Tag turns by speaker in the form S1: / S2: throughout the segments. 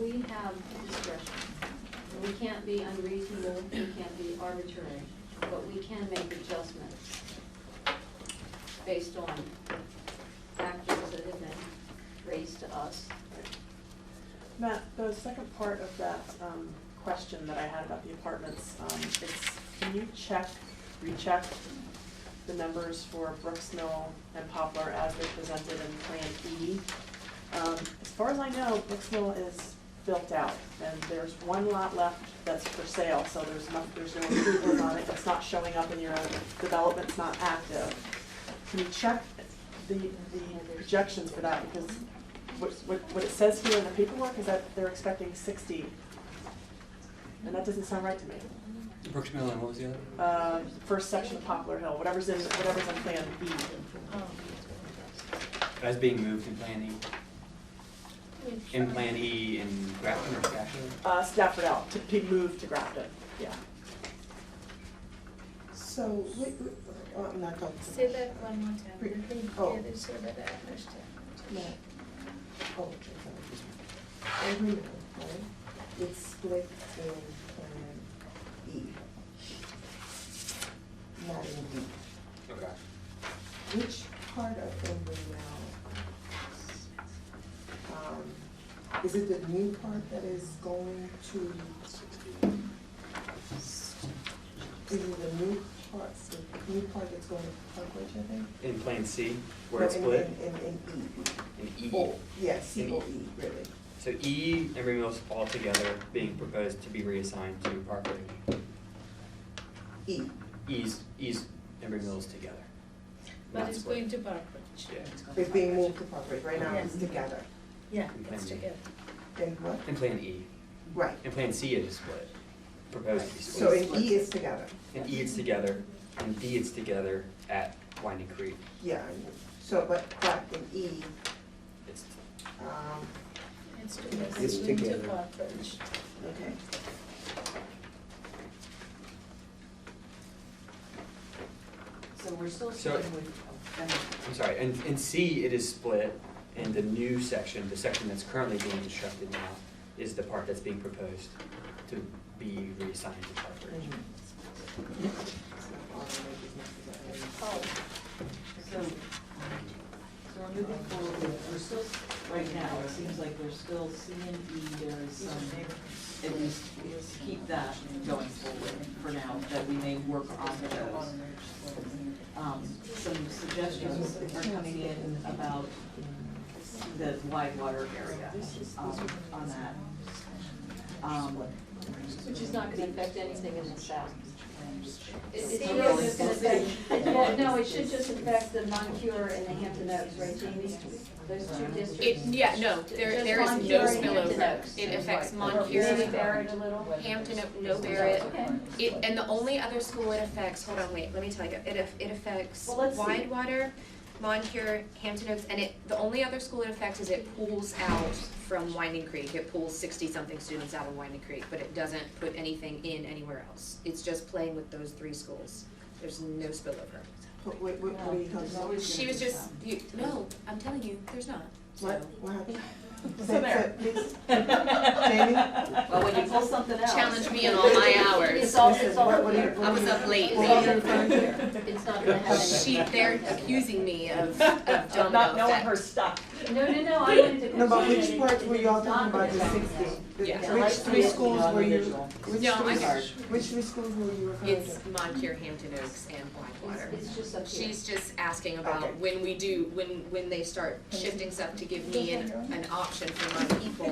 S1: we have discretion. We can't be unreasonable, we can't be arbitrary, but we can make adjustments based on factors that have been raised to us.
S2: Matt, the second part of that um, question that I had about the apartments, um, it's, can you check, recheck the numbers for Brooks Mill and Poplar as they're presented in Plan E? Um, As far as I know, Brooks Mill is built out, and there's one lot left that's for sale, so there's no, there's no improvement on it, it's not showing up in your development's not active. Can you check the, the projections for that, because what, what, what it says here in the paperwork is that they're expecting sixty, and that doesn't sound right to me.
S3: Brooks Mill and what was the other?
S2: Uh, first section of Poplar Hill, whatever's in, whatever's in Plan B.
S3: As being moved in Plan
S1: We've
S3: E, in Plan E in Grafton or Grafton?
S2: Uh, Stafford L, to be moved to Grafton, yeah.
S4: So, wait, wait, oh, I'm not talking.
S5: Say that one more time,
S4: Re-
S5: repeat
S4: oh.
S5: the other so that I understand.
S4: No. Oh, okay, sorry. Every month, right, it's split in Plan E. Not in D.
S3: Okay.
S4: Which part of Emory now? Um, is it the new part that is going to? Is it the new part, the new part that's going to Park Ridge, I think?
S3: In Plan C, where it's
S4: No,
S3: split,
S4: in- In, in, in E.
S3: in E.
S4: Oh, yes,
S3: In E.
S4: C O E, really.
S3: So E, Emery Mill's altogether being proposed to be reassigned to Park Ridge.
S4: E,
S3: E's, E's, Emery Mill's together.
S5: But
S3: Not
S5: it's
S3: split.
S5: going to Park Ridge.
S3: Yeah.
S4: it's being moved to Park Ridge, right now it's
S5: Yes.
S4: together.
S5: Yeah,
S3: And
S5: it's
S3: then-
S5: together.
S4: And what?
S3: In Plan E.
S4: Right.
S3: In Plan C, it is split, proposed to be
S4: So
S3: split.
S4: in E is together,
S3: In E, it's together, and D, it's together at Winding Creek.
S4: yeah, I know. so, but, but in E,
S3: It's
S4: um,
S5: It's together,
S3: It's
S5: it's going to
S3: together.
S5: Park Ridge.
S4: okay.
S6: So we're still
S3: So-
S6: sitting with, oh, never mind.
S3: I'm sorry, and, and C, it is split, and the new section, the section that's currently being constructed now, is the part that's being proposed to be reassigned to Park Ridge.
S4: Mhm.
S1: Oh,
S6: so, so we're moving forward, we're still, right now, it seems like we're still C and E, there is some, at least, let's keep that going forward for now, that we may work on those. Um, some suggestions are coming in about the wide water area, um, on that. Um,
S1: Which is not gonna affect anything in the south. It-
S5: See,
S1: It's
S5: it's-
S1: really just gonna affect, well, no, it should just affect the Moncur and the Hampton Oaks, right, Jamie? Those two districts.
S7: It, yeah, no, there,
S1: Just
S7: there is
S1: Moncur
S7: no
S1: and Hampton Oaks.
S7: spillover. It affects
S1: Or Maybe
S7: Moncur,
S1: Barrett a little.
S7: Hampton, no Barrett.
S1: Okay.
S7: It, and the only other school it affects, hold on, wait, let me tell you, it, aff- it affects
S1: Well, let's see.
S7: Widewater, Moncur, Hampton Oaks, and it, the only other school it affects is it pulls out from Winding Creek. It pulls sixty-something students out of Winding Creek, but it doesn't put anything in anywhere else. It's just playing with those three schools. There's no spillover.
S4: What, what, what what are you talking about?
S7: She was just, you, no, I'm telling you, there's not, so.
S4: What, what happened?
S6: So
S4: Say-
S6: there.
S4: say- please.
S6: Well, when you pull something out.
S7: Challenge me in all my
S1: It's
S7: hours.
S1: all, it's all.
S4: What- what are you-
S1: clear.
S4: what are
S7: I was
S4: you-
S7: up late,
S4: What are you
S7: man.
S4: referring to?
S1: It's not gonna have any.
S7: She, they're accusing me of, of
S6: Of
S7: domino
S6: not knowing
S7: effect.
S6: her stuff.
S1: No, no, no, I wanted to.
S4: No, but
S1: continue
S4: which
S1: it.
S4: part were y'all
S1: It's not
S4: talking about, the
S1: gonna affect
S4: sixty? The-
S7: Yeah.
S4: Which three schools were you, which
S7: No,
S4: three,
S7: I got-
S4: which three schools were you referring to?
S7: It's Moncur, Hampton Oaks, and Blackwater.
S1: It's- It's just up here.
S7: She's just asking
S4: Okay.
S7: about when we do, when, when they start shifting stuff to give me an, an option for my people,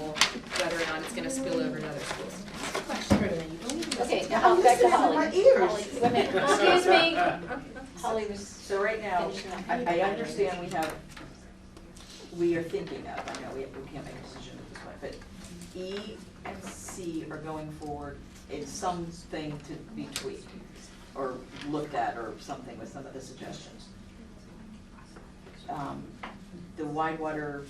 S7: whether or not it's gonna spill over to other schools. That's the question, Brenda, you don't even
S1: Okay,
S7: listen
S1: now back to Holly.
S4: I'm listening to my
S1: Holly,
S4: ears.
S1: wait a minute. excuse me. Holly was
S6: So right now,
S1: finishing up.
S6: I, I understand we have, we are thinking of, I know we, we can't make a decision at this point, but E and C are going forward in something to be tweaked or looked at or something with some of the suggestions. Um, the wide water,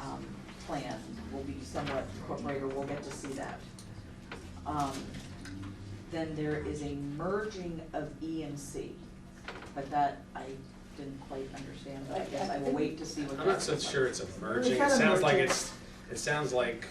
S6: um, plan will be somewhat incorporated, we'll get to see that. Um, then there is a merging of E and C. But that, I didn't quite understand, but I guess I will wait to see what that.
S8: I'm not so sure it's a merging,
S4: not
S8: it
S4: a
S8: sounds like
S4: merging.
S8: it's, it sounds like